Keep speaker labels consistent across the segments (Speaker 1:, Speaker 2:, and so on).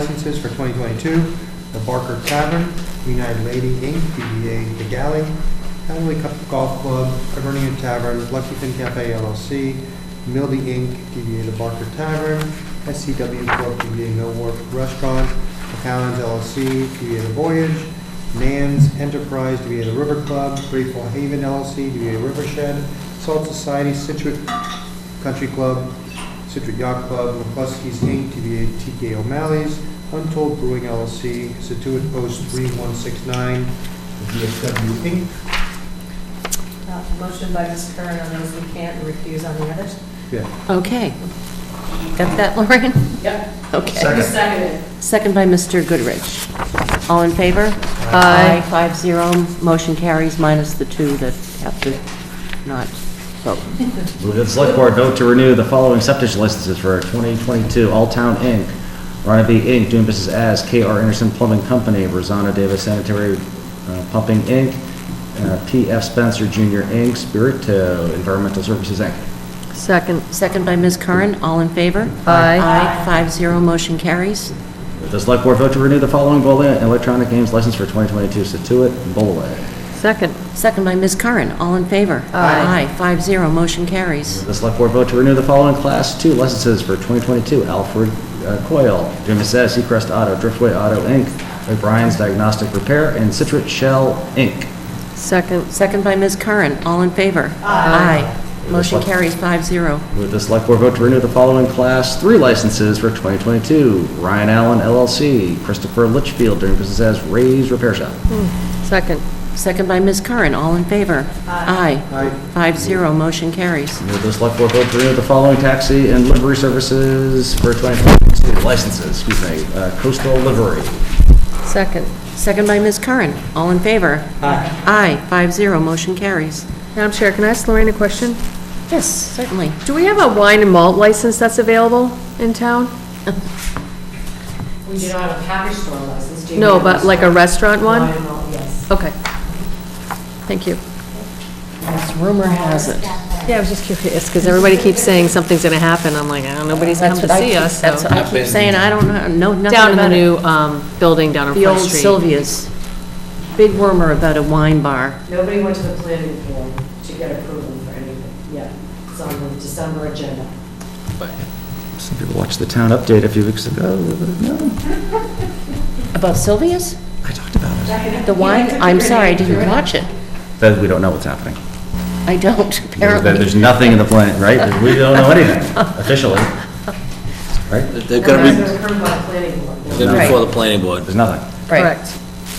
Speaker 1: licenses for 2022, the Barker Tavern, United Lady Inc., DBA The Galley, Heavenly Cup Golf Club, Hibernian Tavern, Lucky Fin Cafe LLC, Mildy Inc., DBA The Barker Tavern, SCW Corp., DBA Mill Wharf Restaurant, McAllen's LLC, DBA The Voyage, Nan's Enterprise, DBA The River Club, Grateful Haven LLC, DBA River Shed, Salt Society, Situate Country Club, Citric Yacht Club, McCluskey's Inc., DBA TK O'Malley's, Untold Brewing LLC, Situate Post 3169, VFW Inc.
Speaker 2: Uh, Motion by Ms. Curran on those we can't, and recuse on the others?
Speaker 1: Yeah,
Speaker 3: Okay. Got that, Lorraine?
Speaker 2: Yep.
Speaker 3: Okay.
Speaker 2: Seconded.
Speaker 3: Second by Mr. Goodrich. All in favor?
Speaker 1: Aye.
Speaker 3: Five zero. Motion carries minus the two that have to not vote.
Speaker 4: Move that the select board vote to renew the following septic licenses for 2022, All Town Inc., Rana B. Inc., doing business as KR Anderson Plumbing Company, Rosanna Davis Sanitary uh, Pumping Inc., uh, PF Spencer Jr. Inc., Spirito Environmental Services Inc.
Speaker 3: Second. Second by Ms. Curran. All in favor?
Speaker 5: Aye.
Speaker 3: Aye. Five zero. Motion carries.
Speaker 4: Move The select board vote to renew the following Bolin Electronic Games license for 2022, Situate and Bolaway.
Speaker 5: Second,
Speaker 3: Second by Ms. Curran. All in favor?
Speaker 5: Aye.
Speaker 3: Aye. Five zero. Motion carries.
Speaker 4: The select board vote to renew the following Class 2 licenses for 2022, Alfred uh, Coyle, doing business as Seacrest Auto, Driftway Auto Inc., O'Brien's Diagnostic Repair, and Citrus Shell Inc.
Speaker 5: second,
Speaker 3: Second by Ms. Curran. All in favor? Aye. Motion carries five zero.
Speaker 4: With the select board vote to renew the following Class 3 licenses for 2022. Ryan Allen LLC, Christopher Litchfield, doing business as Ray's Repair Shop.
Speaker 5: second,
Speaker 3: Second by Ms. Curran. All in favor? Aye.
Speaker 1: aye,
Speaker 3: Five zero. Motion carries.
Speaker 4: With the select board vote to renew the following taxi and livery services for 2022 licenses, excuse me, uh, Coastal Livery.
Speaker 5: second.
Speaker 3: Second by Ms. Curran. All in favor? Aye. Aye, five zero, motion carries.
Speaker 5: Madam Chair, can I ask Lorraine a question?
Speaker 3: Yes, certainly.
Speaker 5: Do we have a wine and malt license that's available in town?
Speaker 2: We do not have a package store license, do you?
Speaker 5: No, but like a restaurant
Speaker 2: Wine
Speaker 5: one?
Speaker 2: and malt, Yes.
Speaker 5: Okay. Thank you.
Speaker 3: As rumor has it.
Speaker 5: Yeah, I was just curious, because everybody keeps saying something's going to happen. I'm like, oh, nobody's come
Speaker 3: That's
Speaker 5: to
Speaker 3: what I
Speaker 5: see
Speaker 3: keep-
Speaker 5: us,
Speaker 3: That's
Speaker 5: so.
Speaker 3: what I keep saying, I don't know, know nothing
Speaker 5: Down in the
Speaker 3: about it.
Speaker 5: new um, building down on
Speaker 3: The
Speaker 5: Front
Speaker 3: old
Speaker 5: Street.
Speaker 3: Sylvia's, big rumor about a wine bar.
Speaker 2: Nobody went to the planning board to get approval for anything, yeah. It's on the December agenda.
Speaker 4: Some people watched the town update a few weeks ago. No,
Speaker 3: About Sylvia's?
Speaker 4: I talked about it.
Speaker 3: The wine, I'm sorry, I didn't watch it.
Speaker 4: That we don't know what's happening.
Speaker 3: I don't,
Speaker 4: There- There's
Speaker 3: apparently.
Speaker 4: nothing in the plan, right? We don't know anything officially, right?
Speaker 6: They're
Speaker 2: It
Speaker 6: gonna
Speaker 2: was
Speaker 6: be,
Speaker 2: approved by the planning board.
Speaker 6: they're before the planning board.
Speaker 4: There's nothing.
Speaker 3: Right,
Speaker 5: Correct.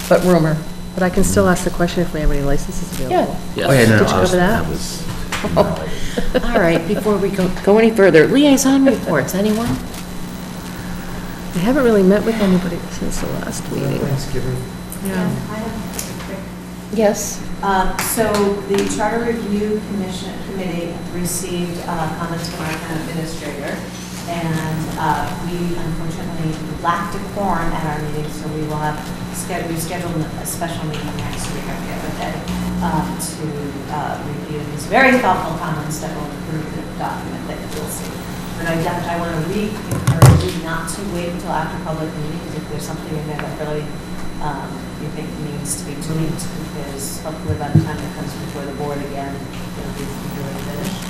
Speaker 3: but rumor,
Speaker 5: But I can still ask the question if we have any licenses available.
Speaker 3: yeah.
Speaker 4: Oh, yeah,
Speaker 6: Yes.
Speaker 4: no,
Speaker 5: Did
Speaker 4: no,
Speaker 5: you
Speaker 4: I
Speaker 5: go
Speaker 4: was-
Speaker 5: for that?
Speaker 4: was.
Speaker 3: All right, before we go, go any further, liaison reports, anyone?
Speaker 5: I haven't really met with anybody since the last meeting.
Speaker 1: Thanksgiving.
Speaker 3: Yes.
Speaker 7: Um, So the Charter Review Commission Committee received uh, comments from our town administrator, and uh, we unfortunately lacked a quorum at our meeting, so we will have, sched- we've scheduled a special meeting next week, I forget what day, um, to uh, review these very thoughtful comments that will improve the document that you'll see. But I definitely, I want to re-encourage you not to wait until after public meetings if there's something in there that really um, you think needs to be tweaked, because hopefully by the time it comes before the board again, it'll be completely finished.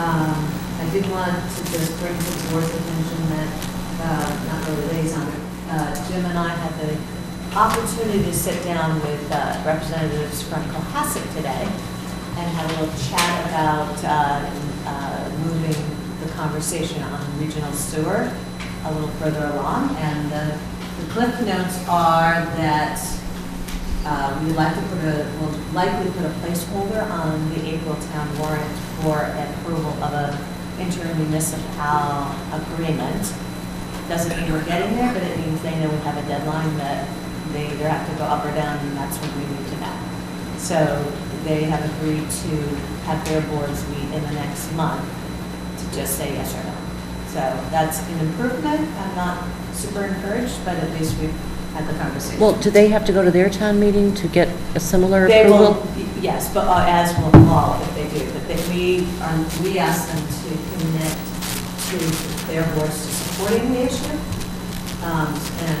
Speaker 7: Um, I did want to just bring to the board's attention that, uh, not really liaison, uh, Jim and I had the opportunity to sit down with uh, representatives from Cohasset today and have a little chat about uh, uh, moving the conversation on regional sewer a little further along. And the the cliff notes are that uh, We would like to put a, will likely put a placeholder on the April town warrant for approval of a intermunicipal agreement. Doesn't mean we're getting there, but it means they know we have a deadline that they either have to go up or down, and that's when we need to know. So they have agreed to have their boards meet in the next month to just say yes or no. So that's an improvement. I'm not super encouraged, but at least we've had the conversation.
Speaker 3: Well, do they have to go to their town meeting to get a similar
Speaker 7: They
Speaker 3: approval?
Speaker 7: will, yes, but uh, as will all if they do, but then we, um, we ask them to commit to their boards to supporting the issue. Um, And